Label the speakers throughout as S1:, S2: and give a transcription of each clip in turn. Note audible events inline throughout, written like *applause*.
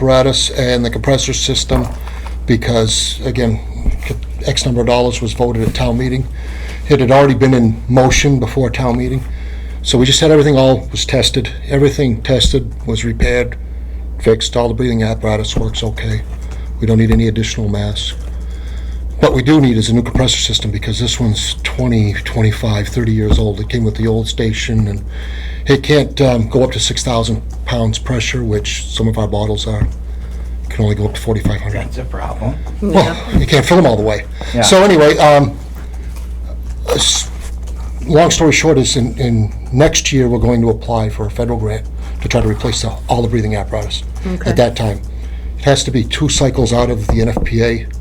S1: apparatus and the compressor system, because, again, X number of dollars was voted at town meeting. It had already been in motion before town meeting, so we just had everything all was tested, everything tested, was repaired, fixed, all the breathing apparatus works okay. We don't need any additional masks. What we do need is a new compressor system, because this one's 20, 25, 30 years old. It came with the old station, and it can't um, go up to 6,000 pounds pressure, which some of our bottles are. It can only go up to 4,500.
S2: That's a problem.
S1: Well, you can't fill them all the way.
S2: Yeah.
S1: So anyway, um, s- long story short is in, in next year, we're going to apply for a federal grant to try to replace the- all the breathing apparatus
S3: Okay.
S1: at that time. It has to be two cycles out of the NFPA.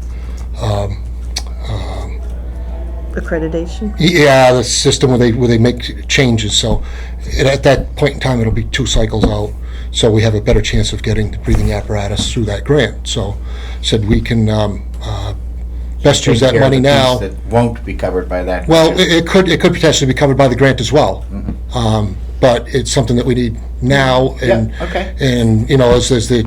S3: accreditation.
S1: Yeah, the system where they, where they make changes, so it- at that point in time, it'll be two cycles out, so we have a better chance of getting the breathing apparatus through that grant. So, said we can um, uh, best use that
S2: Take care of
S1: money
S2: the
S1: now.
S2: piece That won't be covered by that.
S1: Well, it it could, it could potentially be covered by the grant as well. Um, But it's something that we need now and.
S2: Mm-hmm. Yeah, okay.
S1: And, you know, as, as the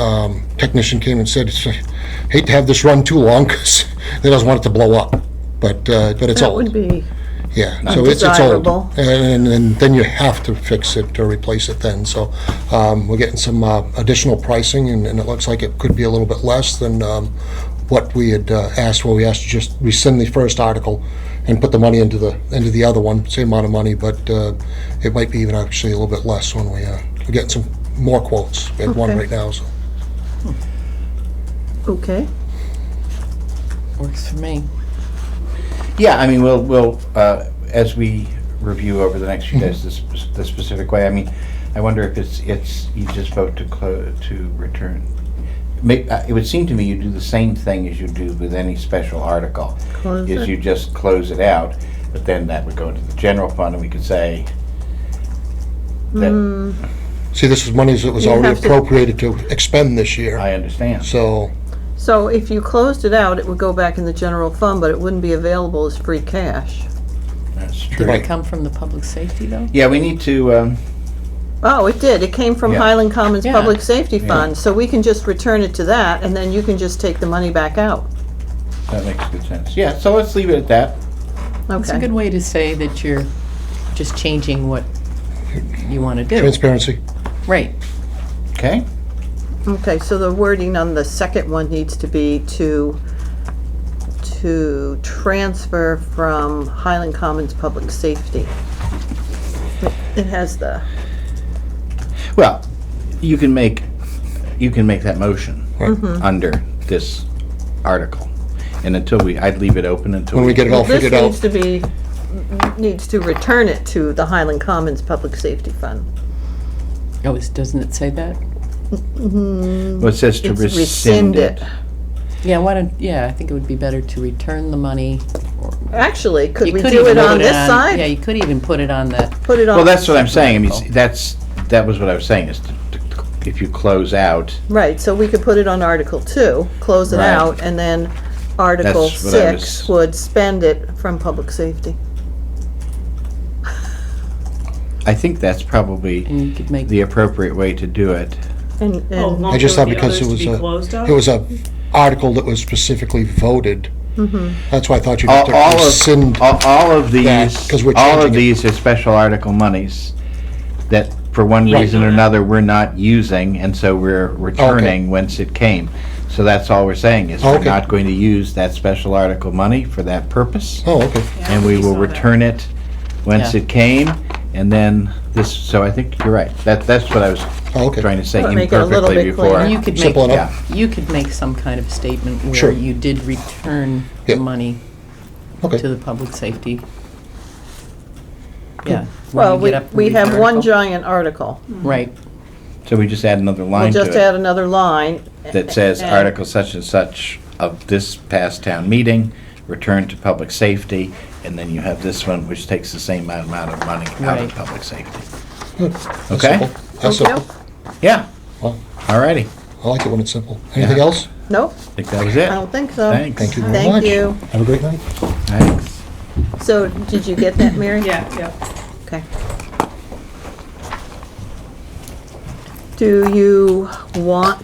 S1: um, technician came and said, "It's- hate to have this run too long because they doesn't want *laughs* it to blow up, but, uh, but it's
S3: That
S1: old.
S3: would be,
S1: Yeah, so it's, it's old.
S3: Undesirable.
S1: And, and- and then you have to fix it or replace it then, so, um, we're getting some, uh, additional pricing, and, and it looks like it could be a little bit less than, um, what we had uh, asked, well, we asked to just rescind the first article and put the money into the, into the other one, same amount of money, but, uh, it might be even actually a little bit less when we, uh, we're getting some more quotes. We have one
S3: Okay.
S1: right now, so.
S3: okay.
S4: Works for me.
S2: Yeah, I mean, we'll, we'll, uh, as we review over the next
S1: Mm-hmm.
S2: few days, this, the specific way, I mean, I wonder if it's, it's, you just vote to clo, to return. May, uh, it would seem to me you do the same thing as you do with any special article.
S3: Close
S2: Is
S3: it.
S2: you just close it out, but then that would go into the general fund and we could say
S3: Mm.
S2: that,
S1: See, this was money that was
S3: You
S1: already
S3: have to-
S1: appropriated to expend this year,
S2: I understand.
S1: so,
S3: So if you closed it out, it would go back in the general fund, but it wouldn't be available as free cash.
S2: That's
S4: Did
S2: true.
S4: it come from the public safety though?
S2: Yeah, we need to, um,
S3: Oh, it did. It came from
S2: Yeah.
S3: Highland Commons
S4: Yeah.
S3: Public Safety Fund, so we can just return it to that, and then you can just take the money back out.
S2: that makes good sense. Yeah, so let's leave it at that.
S4: It's a
S3: Okay.
S4: good way to say that you're just changing what you want to do.
S1: transparency.
S4: Right.
S2: Okay?
S3: Okay, so the wording on the second one needs to be to, to transfer from Highland Commons Public Safety. It has the,
S2: Well, you can make, you can make that motion under this article. And until we, I'd leave it open until
S1: When we
S2: we
S1: get it all
S3: this
S1: figured out.
S3: needs to be, needs to return it to the Highland Commons Public Safety Fund.
S4: Oh, it's- doesn't it say that?
S2: Well, it says to
S3: It's
S2: rescind it.
S4: Yeah, why don't, yeah, I think it would be better to return the money.
S3: Actually, could
S4: You
S3: we
S4: could
S3: do it
S4: even
S3: on
S4: put
S3: this
S4: Yeah,
S3: side?
S4: you could even put it on the,
S3: Put it
S2: Well,
S3: on,
S2: that's what
S1: Oh.
S2: I'm saying. I mean, s- that's, that was what I was saying, is to- to- if you close out,
S3: right, so we could put it on Article Two, close it
S2: Right.
S3: out, and then Article
S2: That's what I
S3: Six
S2: was-
S3: would spend it from public safety.
S2: I think that's probably
S4: and you could make,
S2: the appropriate way to do it.
S3: And,
S4: Oh,
S5: Oh,
S3: and,
S1: I just thought because it was a, it was a article that was specifically voted. That's why I thought you'd have
S2: All
S1: to
S2: all
S1: rescind.
S2: of, all- all of
S1: that,
S2: these,
S1: 'cause we're
S2: all
S1: changing
S2: of
S1: it.
S2: these are special article monies that for one reason or another, we're not using, and so we're returning whence it came. So that's all we're saying is we're
S1: Okay.
S2: not going to use that special article money for that purpose,
S1: Oh, okay.
S2: and we will return it whence
S4: Yeah.
S2: it came, and then this, so I think you're right. That, that's what I was
S1: Oh, okay.
S2: trying to say
S3: Well, make it a little
S2: imperfectly
S3: bit cleaner.
S2: before.
S4: you could
S1: Simple
S4: make,
S1: enough.
S4: you could make some kind of statement
S1: Sure.
S4: where you did return the
S1: Yeah.
S4: money to
S1: Okay.
S4: the public safety. Yeah. when
S3: well,
S4: you
S3: we,
S4: get up and
S3: we
S4: read the
S3: have one
S4: article.
S3: giant article.
S4: Right.
S2: So we just add another
S3: We'll
S2: line
S3: just
S2: to
S3: add another line.
S2: it
S3: *laughs*
S2: that says
S3: and-
S2: article such and such of this past town meeting, return to public safety, and then you have this one which takes the same amount of money out of
S4: Right.
S2: public safety.
S1: That's
S2: Okay.
S1: simple. That's
S3: Okay.
S1: simple.
S2: Yeah,
S1: Well,
S2: all righty.
S1: I like it when it's simple. Anything
S2: Yeah.
S1: else?
S3: Nope,
S2: I think that was
S3: I don't
S2: it.
S3: think so.
S2: Thanks.
S1: Thank you very
S3: Thank
S1: much.
S3: you.
S1: Have a great night.
S2: Thanks.
S3: So, did you get that, Mary?
S5: Yeah, yeah.
S3: Okay. Do you want